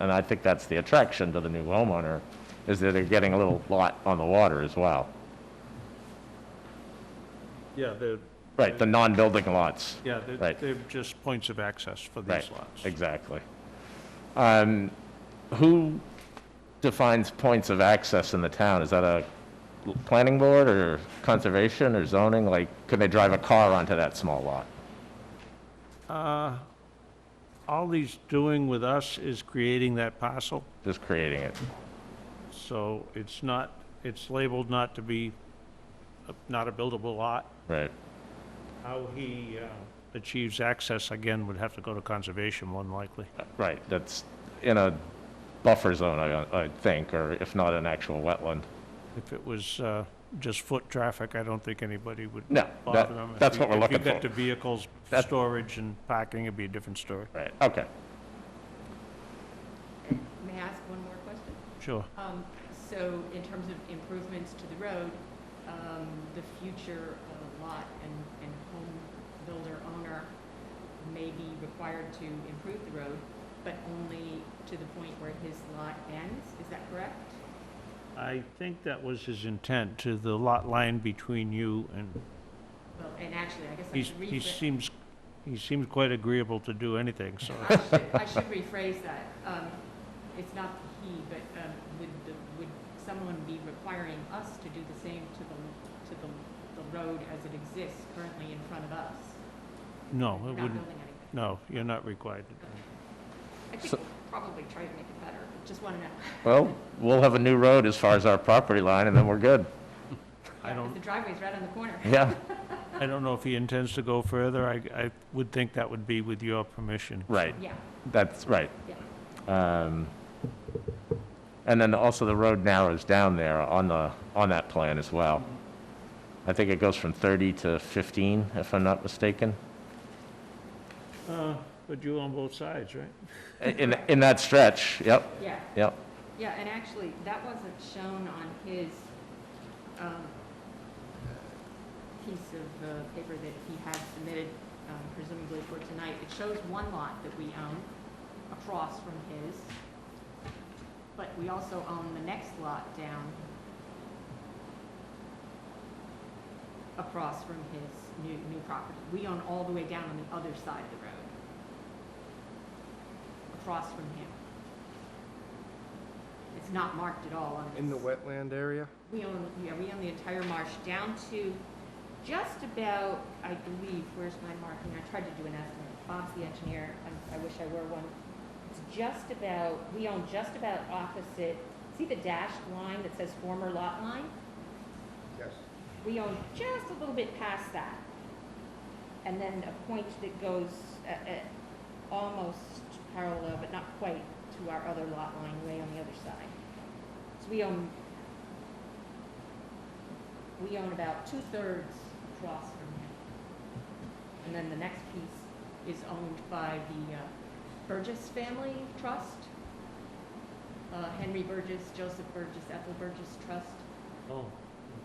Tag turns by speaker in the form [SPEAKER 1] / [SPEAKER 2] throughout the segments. [SPEAKER 1] and I think that's the attraction to the new homeowner, is that they're getting a little lot on the water as well.
[SPEAKER 2] Yeah, they're,
[SPEAKER 1] Right, the non-building lots.
[SPEAKER 2] yeah, they're-
[SPEAKER 1] Right.
[SPEAKER 2] they're just points of access for
[SPEAKER 1] Right,
[SPEAKER 2] these lots.
[SPEAKER 1] exactly. Um, Who defines points of access in the town? Is that a planning board or conservation or zoning? Like, can they drive a car onto that small lot?
[SPEAKER 2] Uh, All he's doing with us is creating that parcel,
[SPEAKER 1] Just creating it.
[SPEAKER 2] so it's not, it's labeled not to be, a- not a buildable lot.
[SPEAKER 1] Right,
[SPEAKER 2] How he uh, achieves access, again, would have to go to conservation, more than likely.
[SPEAKER 1] right, that's in a buffer zone, I, I think, or if not an actual wetland.
[SPEAKER 2] If it was uh, just foot traffic, I don't think anybody would
[SPEAKER 1] No, that,
[SPEAKER 2] bother them. If
[SPEAKER 1] that's
[SPEAKER 2] you-
[SPEAKER 1] what we're looking
[SPEAKER 2] If you got
[SPEAKER 1] for.
[SPEAKER 2] to vehicles,
[SPEAKER 1] That-
[SPEAKER 2] storage and parking, it'd be a different story.
[SPEAKER 1] Right, okay.
[SPEAKER 3] May I ask one more question?
[SPEAKER 2] Sure.
[SPEAKER 3] Um, So in terms of improvements to the road, um, the future of a lot and, and home builder owner may be required to improve the road, but only to the point where his lot ends, is that correct?
[SPEAKER 2] I think that was his intent, to the lot line between you and,
[SPEAKER 3] Well, and actually, I guess I
[SPEAKER 2] he's,
[SPEAKER 3] should
[SPEAKER 2] he
[SPEAKER 3] rephrase.
[SPEAKER 2] seems, he seems quite agreeable to do anything, so.
[SPEAKER 3] I should, I should rephrase that. Um, It's not he, but um, would, the- would someone be requiring us to do the same to the, to the, the road as it exists currently in front of us?
[SPEAKER 2] No,
[SPEAKER 3] Not
[SPEAKER 2] it wouldn't,
[SPEAKER 3] building anything.
[SPEAKER 2] no, you're not required to do it.
[SPEAKER 3] I think
[SPEAKER 1] So-
[SPEAKER 3] we'll probably try to make it better, but just want to know.
[SPEAKER 1] Well, we'll have a new road as far as our property line, and then we're good.
[SPEAKER 2] I
[SPEAKER 3] Yeah, 'cause
[SPEAKER 2] don't-
[SPEAKER 3] The driveway's right on the corner.
[SPEAKER 1] Yeah,
[SPEAKER 2] I don't know if he intends to go further, I, I would think that would be with your permission.
[SPEAKER 1] right,
[SPEAKER 3] Yeah,
[SPEAKER 1] that's right.
[SPEAKER 3] yeah.
[SPEAKER 1] Um, And then also the road narrows down there on the, on that plan as well. I think it goes from 30 to 15, if I'm not mistaken,
[SPEAKER 2] Uh, But you on both sides, right?
[SPEAKER 1] in, in that stretch, yep,
[SPEAKER 3] Yeah,
[SPEAKER 1] yep.
[SPEAKER 3] yeah, and actually, that wasn't shown on his um, piece of uh, paper that he had submitted um, presumably for tonight. It shows one lot that we own across from his, but we also own the next lot down across from his new, new property. We own all the way down on the other side of the road, across from him. It's not marked at all on this.
[SPEAKER 4] In the wetland area?
[SPEAKER 3] We own, yeah, we own the entire marsh down to just about, I believe, where's my marking? I tried to do an estimate. Bob's the engineer. I, I wish I were one. It's just about, we own just about opposite, see the dashed line that says former lot line?
[SPEAKER 4] Yes.
[SPEAKER 3] We own just a little bit past that. And then a point that goes uh, uh, almost parallel, but not quite, to our other lot line way on the other side. So we own, we own about two-thirds across from him. And then the next piece is owned by the uh, Burgess Family Trust. Uh, Henry Burgess, Joseph Burgess, Ethel Burgess Trust
[SPEAKER 2] Oh.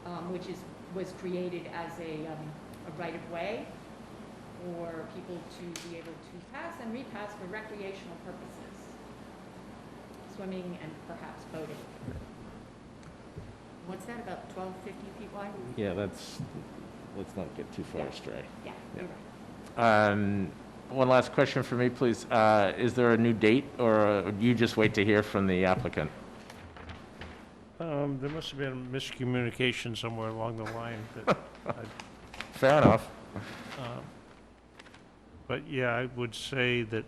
[SPEAKER 3] um, which is, was created as a, um, a right-of-way for people to be able to pass and repass for recreational purposes, swimming and perhaps boating. What's that, about twelve fifty feet wide?
[SPEAKER 1] Yeah, that's, let's not get too far astray.
[SPEAKER 3] Yeah, you're right.
[SPEAKER 1] Um, One last question for me, please. Uh, Is there a new date, or uh, do you just wait to hear from the applicant?
[SPEAKER 2] Um, there must have been miscommunication somewhere along the line that I
[SPEAKER 1] Fair enough.
[SPEAKER 2] Um, But yeah, I would say that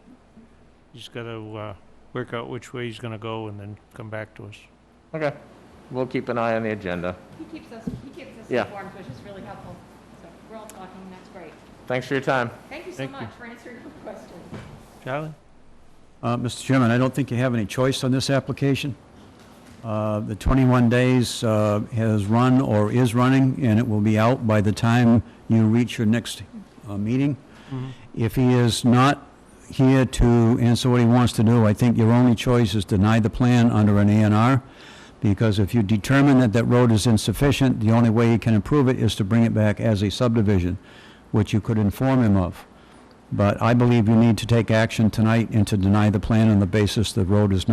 [SPEAKER 2] he's got to work out which way he's going to go and then come back to us.
[SPEAKER 1] Okay, we'll keep an eye on the agenda.
[SPEAKER 3] He keeps us, he keeps us
[SPEAKER 1] Yeah.
[SPEAKER 3] informed, which is really helpful. So we're all talking, that's great.
[SPEAKER 1] Thanks for your time.
[SPEAKER 3] Thank you so
[SPEAKER 2] Thank you.
[SPEAKER 3] much for answering our questions.
[SPEAKER 2] Charlie?
[SPEAKER 5] Uh, Mr. Chairman, I don't think you have any choice on this application. Uh, The 21 days uh, has run or is running, and it will be out by the time you reach your next uh, meeting. If he is not here to answer what he wants to do, I think your only choice is deny the plan under an A and R, because if you determine that that road is insufficient, the only way you can improve it is to bring it back as a subdivision, which you could inform him of. But I believe you need to take action tonight and to deny the plan on the basis the road is not.